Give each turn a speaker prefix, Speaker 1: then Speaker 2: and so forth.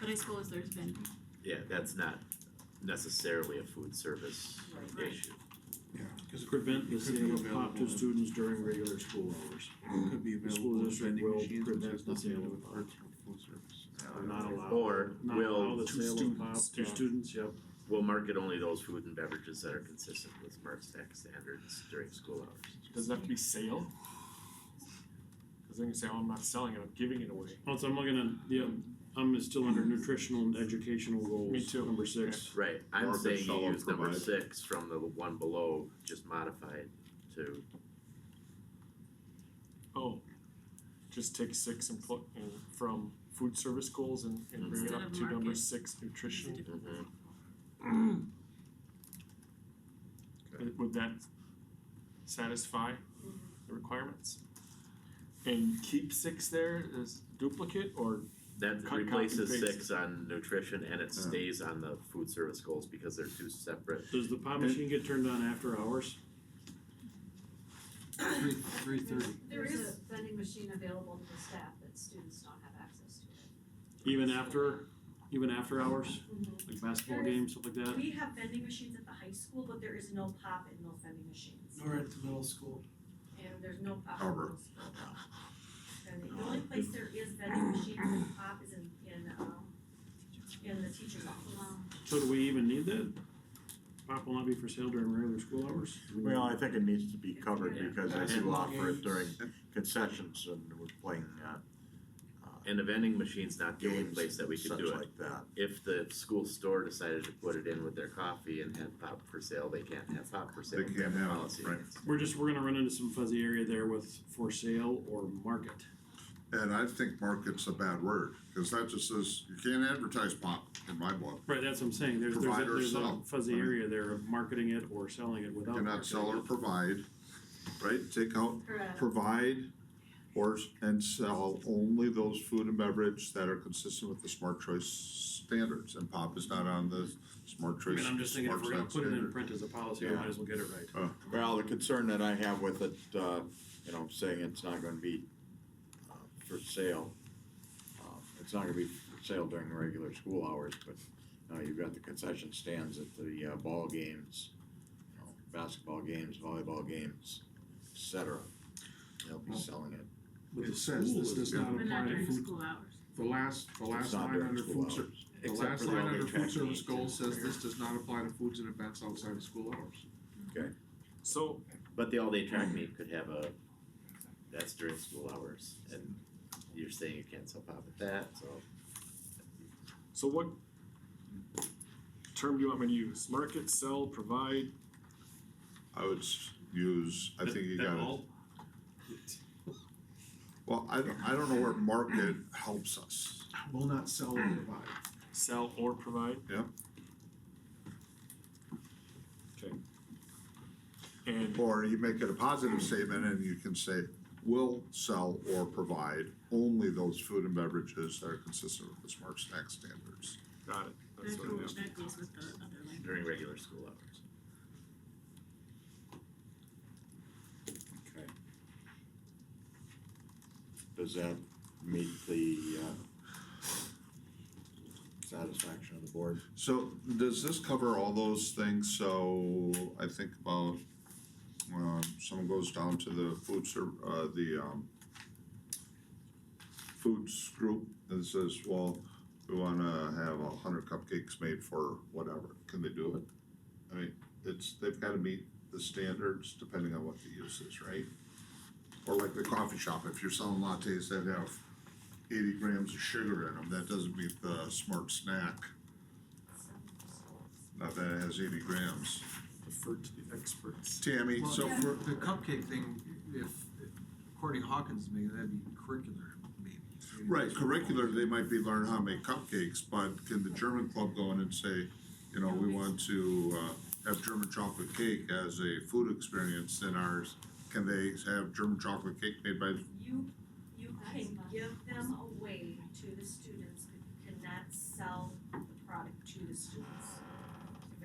Speaker 1: high school as there's been.
Speaker 2: Yeah, that's not necessarily a food service
Speaker 1: Right.
Speaker 2: issue.
Speaker 3: Cause it could
Speaker 4: Prevent the
Speaker 3: It could
Speaker 4: sale
Speaker 3: be
Speaker 4: of pop to
Speaker 3: available.
Speaker 4: students during regular school hours.
Speaker 3: could be
Speaker 4: The school
Speaker 3: available in
Speaker 4: district
Speaker 3: vending
Speaker 4: will
Speaker 3: machines, which
Speaker 4: prevent
Speaker 3: has
Speaker 4: the
Speaker 3: nothing to
Speaker 4: sale
Speaker 3: do
Speaker 4: of
Speaker 3: with
Speaker 4: pop.
Speaker 3: parts from food service.
Speaker 4: Or not allowed.
Speaker 2: Or
Speaker 4: Not allow
Speaker 2: will,
Speaker 4: the
Speaker 3: to
Speaker 4: sale of pop
Speaker 3: students.
Speaker 4: to students, yep.
Speaker 2: will market only those food and beverages that are consistent with Smart Stack standards during school hours.
Speaker 5: Does it have to be sale? Cause they can say, oh, I'm not selling it, I'm giving it away.
Speaker 4: Also, I'm looking at, yeah, I'm still under nutritional and educational goals.
Speaker 5: Me too.
Speaker 4: Number six.
Speaker 2: Right, I'm
Speaker 6: Market
Speaker 2: saying you
Speaker 6: shall
Speaker 2: use number
Speaker 6: provide.
Speaker 2: six from the one below, just modified to,
Speaker 5: Oh, just take six and put, and from food service goals and, and bring it
Speaker 1: Instead
Speaker 5: up
Speaker 1: of
Speaker 5: to number
Speaker 1: market.
Speaker 5: six nutrition.
Speaker 2: mhm,
Speaker 5: Would- Would that satisfy
Speaker 1: Mm-hmm.
Speaker 5: the requirements? And keep six there as duplicate or
Speaker 2: that
Speaker 5: Cut, copy,
Speaker 2: replaces
Speaker 5: paste.
Speaker 2: six on nutrition and it
Speaker 6: Yeah.
Speaker 2: stays on the food service goals because they're two separate.
Speaker 4: Does the pop machine get turned on after hours?
Speaker 3: Three, three thirty.
Speaker 7: There is a vending machine available to the staff, but students don't have access to it.
Speaker 4: Even after, even after hours,
Speaker 7: Mhm.
Speaker 4: like basketball
Speaker 7: There is-
Speaker 4: games, stuff like that?
Speaker 7: We have vending machines at the high school, but there is no pop and no vending machines.
Speaker 3: Nor at the middle school.
Speaker 7: And there's no pop.
Speaker 6: However.
Speaker 7: And the only place there is vending machines and pop is in, in, um, in the teacher's office.
Speaker 4: So do we even need that? Pop will not be for sale during regular school hours?
Speaker 6: Well, I think it needs to be covered
Speaker 7: Yeah.
Speaker 6: because they do
Speaker 3: Basketball
Speaker 6: offer it
Speaker 3: games.
Speaker 6: during concessions and we're playing, uh, uh,
Speaker 2: And the vending machine's not the only
Speaker 6: games,
Speaker 2: place that we could
Speaker 6: such
Speaker 2: do it.
Speaker 6: like that.
Speaker 2: if the school store decided to put it in with their coffee and have pop for sale, they can't have pop for sale.
Speaker 6: They can't
Speaker 2: That's
Speaker 6: have it,
Speaker 2: policy.
Speaker 6: right.
Speaker 4: We're just, we're gonna run into some fuzzy area there with for sale or market.
Speaker 8: And I think market's a bad word, cause that just says, you can't advertise pop in my book.
Speaker 4: Right, that's what I'm saying, there's, there's a,
Speaker 8: Provide or
Speaker 4: there's a
Speaker 8: sell.
Speaker 4: fuzzy area there of marketing it or selling it
Speaker 8: You
Speaker 4: without.
Speaker 8: cannot sell or
Speaker 4: marketing
Speaker 8: provide,
Speaker 6: Right, take out,
Speaker 7: Correct.
Speaker 6: provide or, s- and sell only those food and beverage that are consistent with the smart choice standards, and pop is not on the smart
Speaker 4: it. I
Speaker 6: choice.
Speaker 4: mean, I'm just thinking, if
Speaker 6: Smart
Speaker 4: we're gonna
Speaker 6: Choice
Speaker 4: put it in
Speaker 6: standard.
Speaker 4: print as a policy, we
Speaker 6: Yeah.
Speaker 4: might as well get it right.
Speaker 9: Well, the concern that I have with it, uh, you know, saying it's not gonna be, uh, for sale. uh, It's not gonna be for sale during the regular school hours, but, uh, you've got the concession stands at the, uh, ball games, you know, basketball games, volleyball games, et cetera. They'll be selling it.
Speaker 3: But
Speaker 4: It
Speaker 3: the
Speaker 4: says
Speaker 3: school
Speaker 4: this
Speaker 3: is
Speaker 4: does
Speaker 3: not
Speaker 4: not
Speaker 1: But
Speaker 3: apply
Speaker 1: not
Speaker 3: to
Speaker 1: during
Speaker 3: food,
Speaker 1: school hours.
Speaker 3: the last, the
Speaker 9: It's
Speaker 3: last
Speaker 9: not
Speaker 3: line
Speaker 9: during
Speaker 3: under
Speaker 9: school
Speaker 3: food ser-
Speaker 9: hours,
Speaker 3: the
Speaker 9: except
Speaker 3: last
Speaker 9: for the
Speaker 3: line
Speaker 9: all-day
Speaker 3: under
Speaker 9: track
Speaker 3: food service
Speaker 9: meets and
Speaker 3: goals says
Speaker 9: fair.
Speaker 3: this does not apply to foods and events outside of school hours.
Speaker 5: so
Speaker 2: But the all-day track meet could have a, that's during school hours, and you're saying you can't sell pop at that, so.
Speaker 5: So what term do you want me to use? Market, sell, provide?
Speaker 8: I would s- use, I think you
Speaker 4: That- that
Speaker 8: gotta,
Speaker 4: all-
Speaker 8: well, I don't, I don't know where market helps us.
Speaker 3: Will not sell or provide.
Speaker 5: Sell or provide?
Speaker 8: Yeah.
Speaker 5: Okay. And
Speaker 8: Or you make it a positive statement and you can say, will sell or provide only those food and beverages that are consistent with the smart snack standards.
Speaker 5: got it. That's
Speaker 1: That
Speaker 5: what I
Speaker 1: goes,
Speaker 5: have.
Speaker 1: that goes with the other language.
Speaker 2: During regular school hours.
Speaker 9: Okay. Does that meet the, uh, satisfaction of the board?
Speaker 8: So does this cover all those things? So I think about, um, someone goes down to the food ser- uh, the, um, foods group and says, well, we wanna have a hundred cupcakes made for whatever. Can they do it? I mean, it's, they've gotta meet the standards depending on what the use is, right? Or like the coffee shop, if you're selling lattes that have eighty grams of sugar in them, that doesn't meet the smart snack. Not that it has eighty grams.
Speaker 5: Refer to the experts.
Speaker 8: Tammy,
Speaker 3: Well,
Speaker 8: so
Speaker 7: yeah.
Speaker 8: for,
Speaker 3: The cupcake thing, if, according to Hawkins, maybe that'd be curricular, maybe. Maybe
Speaker 8: right,
Speaker 3: that's-
Speaker 8: curricular, they might be learning how to make cupcakes, but can the German club go in and say, you know, we want to, uh, have German chocolate cake as a food experience in ours? Can they have German chocolate cake made by,
Speaker 7: You, you can give them away to the students, but you cannot sell the product to the students.